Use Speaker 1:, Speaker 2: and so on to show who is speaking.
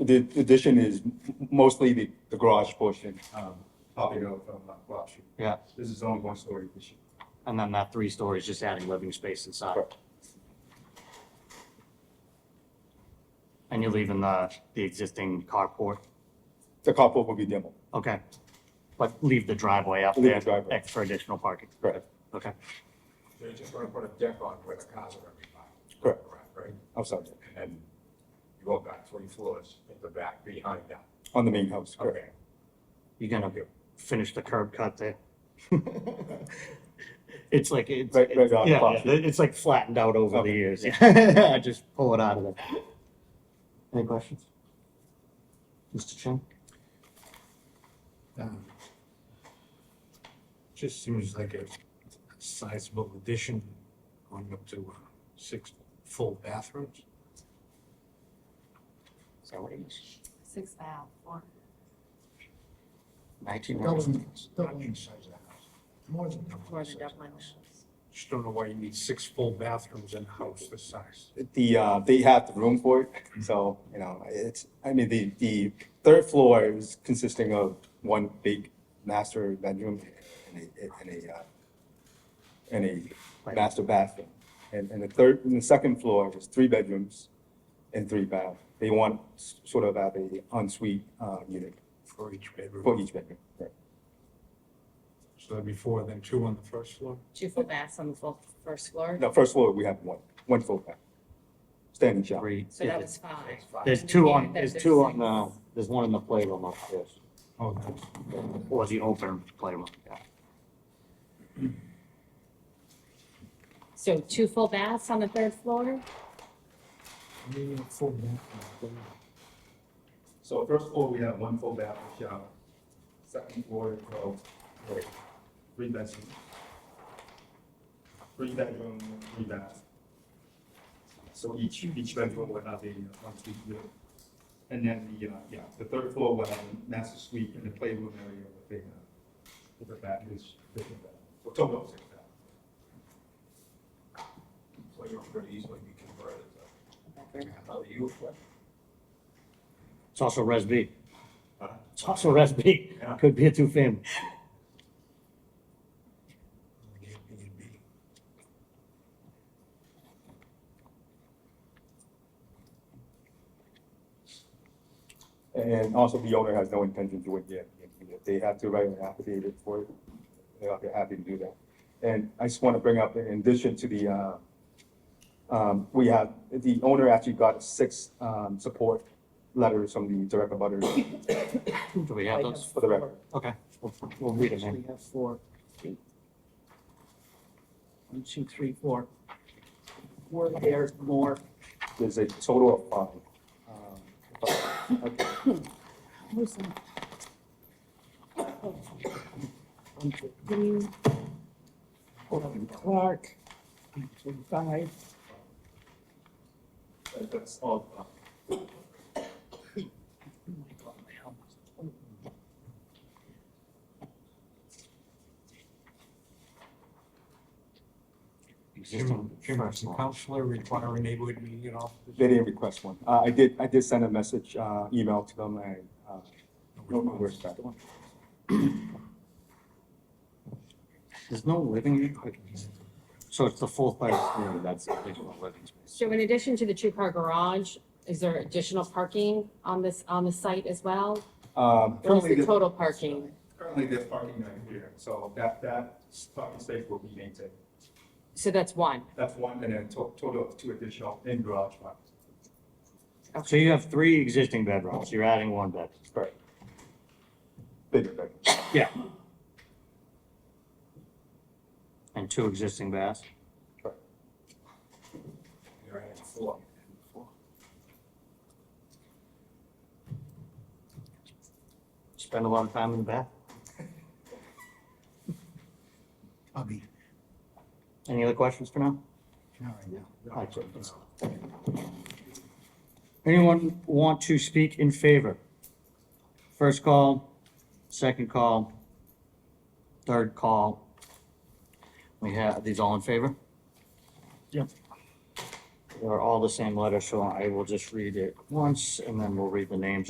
Speaker 1: the addition is mostly the, the garage portion, um, popping out from uh, Rock Street.
Speaker 2: Yeah,
Speaker 1: This is only one story addition.
Speaker 2: and then that three stories just adding living space inside.
Speaker 1: Correct.
Speaker 2: And you're leaving the, the existing carport,
Speaker 1: The carport will be demo.
Speaker 2: okay? But leave the driveway up
Speaker 1: Leave the
Speaker 2: there
Speaker 1: driveway.
Speaker 2: ex- for additional parking,
Speaker 1: Correct.
Speaker 2: okay?
Speaker 3: They're just gonna put a deck on where the cars are gonna be parked.
Speaker 1: Correct.
Speaker 3: Right?
Speaker 1: I'm sorry,
Speaker 3: And you go back three floors at the back behind that.
Speaker 1: on the main house, correct.
Speaker 3: Okay.
Speaker 2: You're gonna finish the curb cut there. It's like, it's,
Speaker 1: Right- right
Speaker 2: it's-
Speaker 1: on
Speaker 2: yeah,
Speaker 1: top.
Speaker 2: yeah, it's like flattened out over the
Speaker 1: Okay.
Speaker 2: years, yeah. I just pull it out of there. Any questions? Mr. Chen?
Speaker 4: Um, Just seems like a sizable addition going up to uh, six full bathrooms.
Speaker 2: Is that what it is?
Speaker 5: Six out, four.
Speaker 2: Nineteen
Speaker 4: Doubling,
Speaker 2: hundred?
Speaker 4: doubling the size of the house. More than double.
Speaker 5: More
Speaker 4: the
Speaker 5: than
Speaker 4: size.
Speaker 5: double my levels.
Speaker 4: Just don't know why you need six full bathrooms in a house this size.
Speaker 1: The, uh, they have the room for it, so, you know, it's, I mean, the, the third floor is consisting of one big master bedroom and a, and a, uh, and a
Speaker 2: Right.
Speaker 1: master bathroom. And, and the third, and the second floor is three bedrooms and three baths. They want s- sort of have a ensuite, uh, unit
Speaker 4: For each
Speaker 1: for
Speaker 4: bedroom.
Speaker 1: each bedroom. Right.
Speaker 4: So that'd be four, then two on the first floor?
Speaker 5: Two full baths on the full first floor,
Speaker 1: The first floor, we have one, one full bath, standing shower.
Speaker 2: Three.
Speaker 5: so that was five.
Speaker 2: There's two on, there's two on, the. there's one in the playroom upstairs,
Speaker 4: Oh, that's-
Speaker 2: or the open playroom, yeah.
Speaker 5: So two full baths on the third floor?
Speaker 4: I mean, a full bathroom.
Speaker 1: So first floor, we have one full bathroom shower. Second floor, oh, wait, three bedrooms. Three bedroom, three bath. So each, each bedroom will have a uh, one suite unit. And then the, uh, yeah, the third floor will have a master suite and the playroom area with a, uh, with a bath, is, with a bath. Well, total of six baths.
Speaker 3: Playroom could easily be converted. How do you?
Speaker 2: It's also Res B,
Speaker 3: Huh?
Speaker 2: it's also Res B,
Speaker 3: Yeah.
Speaker 2: could be a two-family.
Speaker 4: Airbnb.
Speaker 1: And also the owner has no intention to win yet. If They have to write an affidavit for it. They're they're happy to do that. And I just want to bring up, in addition to the, uh, um, we have, the owner actually got six um, support letters from the direct abutters
Speaker 2: Do we have those?
Speaker 1: for the record.
Speaker 2: Okay, we'll, we'll read them in.
Speaker 6: We have four. One, two, three, four. Four pairs more.
Speaker 1: There's a total of five. Um, okay.
Speaker 6: Where's that? One for Green. One for Clark. One Oh for Guy.
Speaker 1: That- That's all. uh,
Speaker 6: Oh my God, my helmet's totally-
Speaker 4: Jim,
Speaker 2: Existing
Speaker 4: Jim,
Speaker 2: first
Speaker 4: is the
Speaker 2: floor.
Speaker 4: counselor requiring neighborhood meeting at all?
Speaker 1: They didn't request one. Uh, I did, I did send a message, uh, email to them and uh, no response.
Speaker 2: There's no living, so it's the full place, yeah, that's the additional living space.
Speaker 5: So in addition to the two-car garage, is there additional parking on this, on the site as well?
Speaker 1: Um,
Speaker 5: What is
Speaker 1: currently
Speaker 5: the
Speaker 1: the-
Speaker 5: total parking?
Speaker 1: Currently, there's parking right here, so that, that parking space will be maintained.
Speaker 5: So that's one.
Speaker 1: That's one, and then to- total of two additional in garage ones.
Speaker 2: So you have three existing bedrooms, you're adding one bed.
Speaker 1: Right. Bigger bedroom.
Speaker 2: Yeah. And two existing baths?
Speaker 3: You're at four.
Speaker 2: Spend a lot of time in the bath?
Speaker 4: I'll be,
Speaker 2: Any other questions for now?
Speaker 4: not right now.
Speaker 2: All right, so it's- Anyone want to speak in favor? First call, second call, third call. We have, are these all in favor?
Speaker 6: Yep.
Speaker 2: They're all the same letter, so I will just read it once and then we'll read the names